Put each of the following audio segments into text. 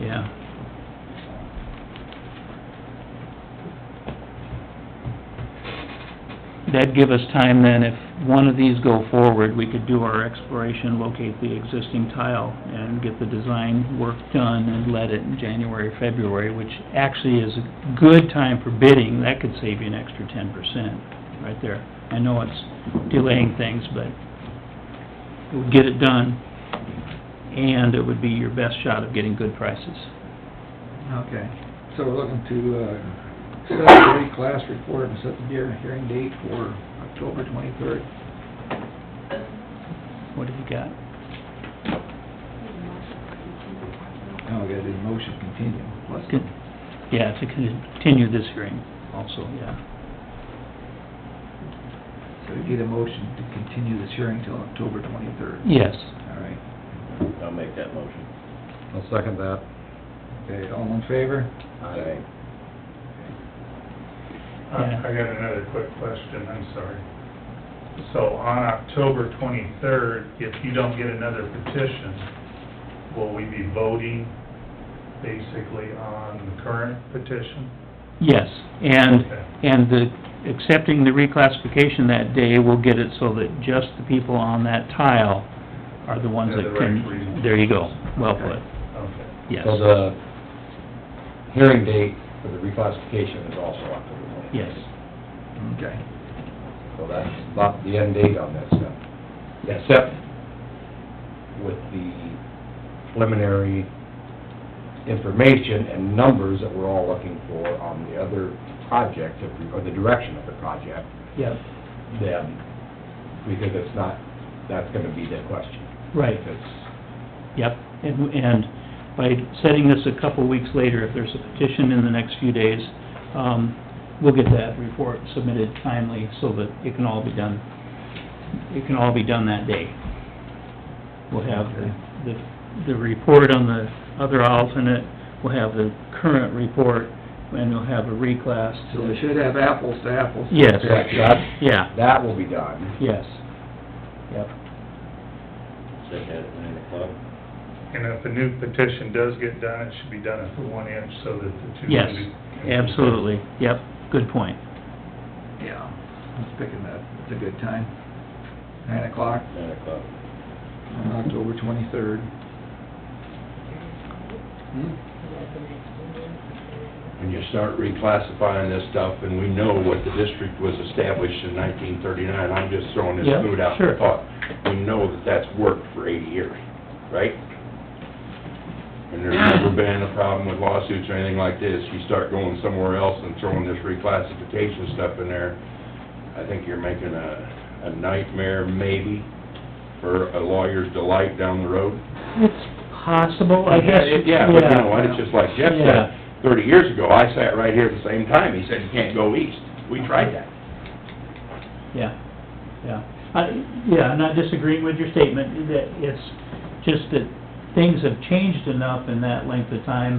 yeah. That'd give us time then, if one of these go forward, we could do our exploration, locate the existing tile, and get the design work done and let it in January, February, which actually is a good time for bidding, that could save you an extra ten percent, right there. I know it's delaying things, but it would get it done, and it would be your best shot of getting good prices. Okay, so we're looking to, uh, set the rate class report and set the hear- hearing date for October twenty-third. What have you got? Now we gotta do the motion continue. Let's- Good. Yeah, to continue this hearing also, yeah. So we need a motion to continue this hearing till October twenty-third. Yes. All right. I'll make that motion. I'll second that. Okay, all in favor? Yeah. Aye. Uh, I I got another quick question, I'm sorry. So on October twenty-third, if you don't get another petition, will we be voting basically on the current petition? Yes, and, Okay. and the, accepting the reclassification that day will get it so that just the people on that tile are the ones They're that the can... right reason. There you go, well Okay. put, Okay. yes, So the hearing date for the reclassification is also October 20th. yes. Okay. So that's about the end date on that stuff. Except with the preliminary information and numbers that we're all looking for on the other project, if we- or the direction of the project, Yep. then, because it's not, that's gonna be the question. Right. If it's, Yep, and, and by setting this a couple weeks later, if there's a petition in the next few days, um, we'll get that report submitted timely so that it can all be done, it can all be done that day. We'll have the, the, the report on the other alternate, we'll have the current report, and we'll have a reclass So we to... should have apples to apples. Yes, Correct, that, yeah, that will be done. yes, yep. Set that at nine o'clock. And if a new petition does get done, it should be done at the one inch so that the two... Yes, can be- absolutely, yep, good point. Yeah, I'm picking that, it's a good time. Nine o'clock Nine o'clock. on October twenty-third. and you start reclassifying this stuff, and we know what the district was established in nineteen thirty-nine, I'm just throwing this Yeah, food out sure. for thought. We know that that's worked for eighty years, right? And there's never been a problem with lawsuits or anything like this, you start going somewhere else and throwing this reclassification stuff in there, I think you're making a, a nightmare maybe for a lawyer's delight down the road. It's possible, I guess. Yeah, but you know what, it's just like Jeff Yeah. said, thirty years ago, I sat right here at the same time, he said, you can't go east. We tried that. Yeah, yeah. I, yeah, I'm not disagreeing with your statement, that it's just that things have changed enough in that length of time.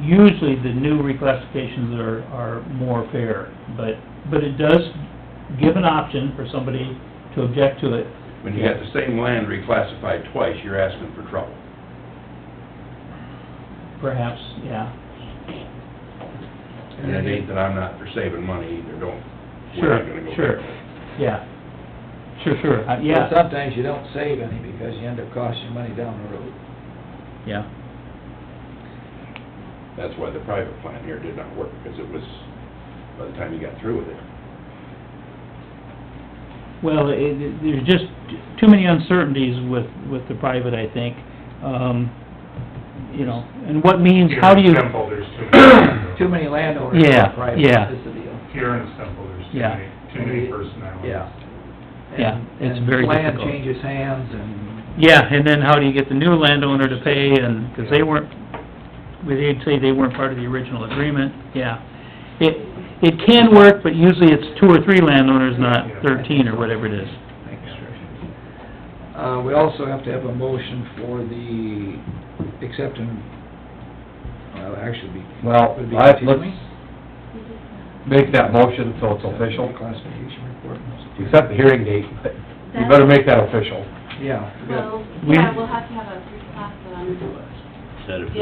Usually the new reclassifications are, are more fair, but, but it does give an option for somebody to object to it. When you got the same land reclassified twice, you're asking for trouble. Perhaps, yeah, And it ain't that I'm not for saving money either, don't, we're Sure, not gonna go sure. that way. yeah. Sure, sure, Uh, But yeah, Sometimes you don't save any because you end up costing money down the road. yeah, That's why the private plan here did not work, because it was, by the time you got through with it. well, it, it- there's just too many uncertainties with, with the private, I think. Um, you know, and what means, Here how do you... in Temple, there's too many... Too many landowners Yeah, are private, yeah. is the deal. Here in Temple, there's too Yeah. many, too many personalities. Yeah. Yeah, And- it's very And difficult. land changes hands and, Yeah, and then how do you get the new landowner to pay, and, because they weren't, well, they'd say they weren't part of the original agreement, yeah. It, it can work, but usually it's two or three landowners, not thirteen or whatever it is. thanks, Trish. Uh, we also have to have a motion for the acceptance, well, actually be. Well, would be I- let's continuing. make that motion so it's official. Classification report. We set the hearing date, but you better make that official. Yeah. we got- Well, We- yeah, we'll have to have a reclass on Set it for